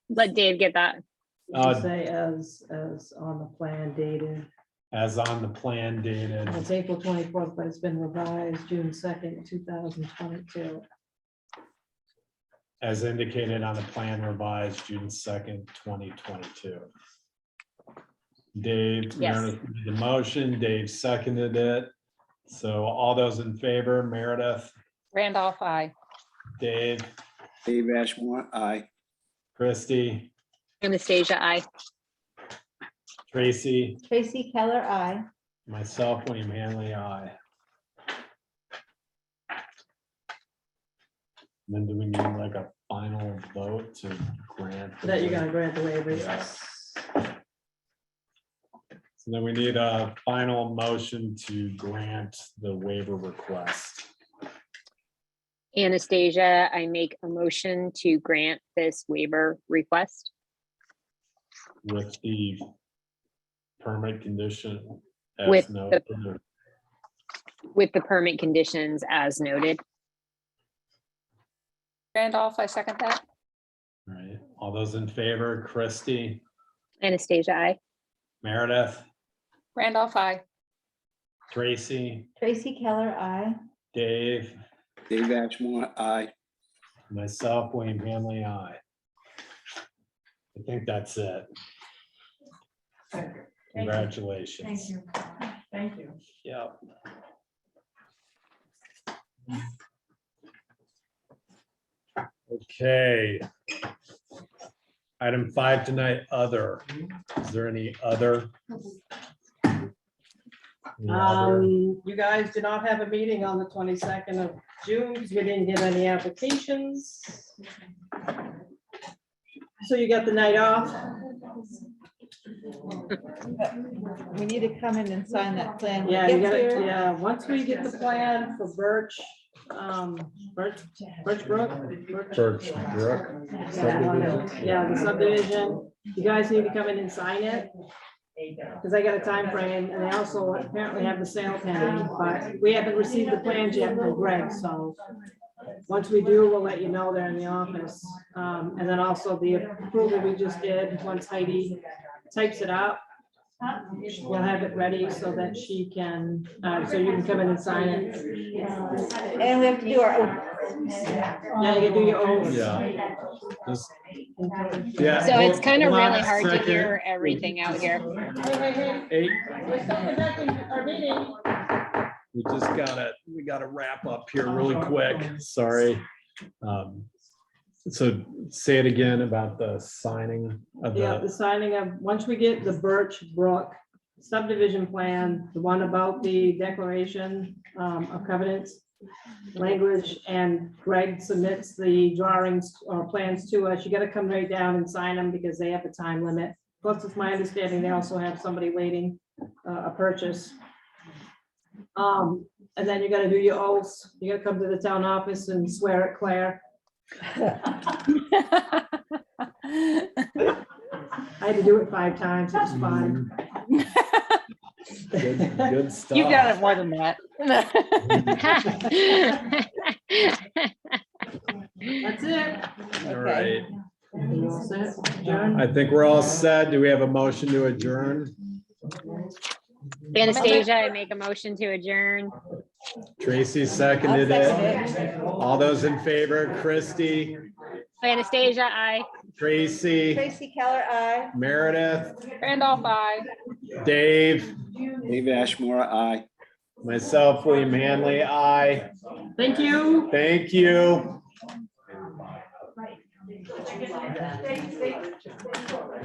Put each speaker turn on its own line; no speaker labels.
let Dave get that.
Uh,
Just Say as, as on the plan dated,
as on the plan dated.
and it's April twenty-fourth, but it's been revised June second, two thousand twenty-two.
as indicated on the plan revised June second, twenty twenty-two. Dave,
Yes.
Meredith made the motion, Dave seconded it. So all those in favor, Meredith,
Randolph, I.
Dave,
Dave Ashmore, aye.
Christie,
Anastasia, I.
Tracy,
Tracy Keller, I.
myself, William Hanley, I. Then do we need like a final vote to grant? the
That you're
waiver?
gonna grant the waivers.
Yes. So then we need a final motion to grant the waiver request.
Anastasia, I make a motion to grant this waiver request.
With the permit condition. as
With
no
the-
further-
with the permit conditions as noted.
Randolph, I second that.
all right. All those in favor, Christie,
Anastasia, I.
Meredith,
Randolph, I.
Tracy,
Tracy Keller, I.
Dave,
Dave Ashmore, aye.
myself, William Hanley, I. I think that's it. Congratulations.
Thank you. Thank you.
Yeah. Okay. Item five tonight, other. Is there any other? Any other?
Um, you guys did not have a meeting on the twenty-second of June, because we didn't get any applications. So you got the night off.
We need to come in and sign that plan. when
Yeah,
we
you
get
gotta,
here.
yeah, once we get the plan for Birch, um, Birch, Birch Brook. Birch-
Birch Brook. subdivision.
Yeah, the subdivision, you guys need to come in and sign it. Cause I got a time frame, and I also apparently have the sale pending, but we haven't received the plans yet from Greg, so. Once we do, we'll let you know they're in the office, um, and then also the approval we just did, once Heidi types it up. We'll have it ready so that she can, uh, so you can come in and sign it.
And we have to do our own.
Now you can do your own.
Yeah. Just- Yeah,
So it's
hold-
kind of
hold on
really
a
hard to
second.
hear everything out here.
Eight,
We're back in our meeting.
we just gotta, we gotta wrap up here really quick, sorry. Um, So say it again about the signing of
Yeah,
the,
the signing of, once we get the Birch Brook subdivision plan, the one about the declaration um, of covenants language, and Greg submits the drawings or plans to us, you gotta come right down and sign them because they have a time limit. Plus, it's my understanding, they also have somebody waiting uh, a purchase. Um, And then you gotta do your oaths, you gotta come to the town office and swear at Claire. I had to do it five times, it's fine.
good good stuff.
You've done it more than that.
That's it.
All right,
John,
I think we're all set. Do we have a motion to adjourn?
Anastasia, I make a motion to adjourn.
Tracy seconded it. All those in favor, Christie,
Anastasia, I.
Tracy,
Tracy Keller, I.
Meredith,
Randolph, I.
Dave,
Dave Ashmore, aye.
myself, William Hanley, I.
thank you.
Thank you.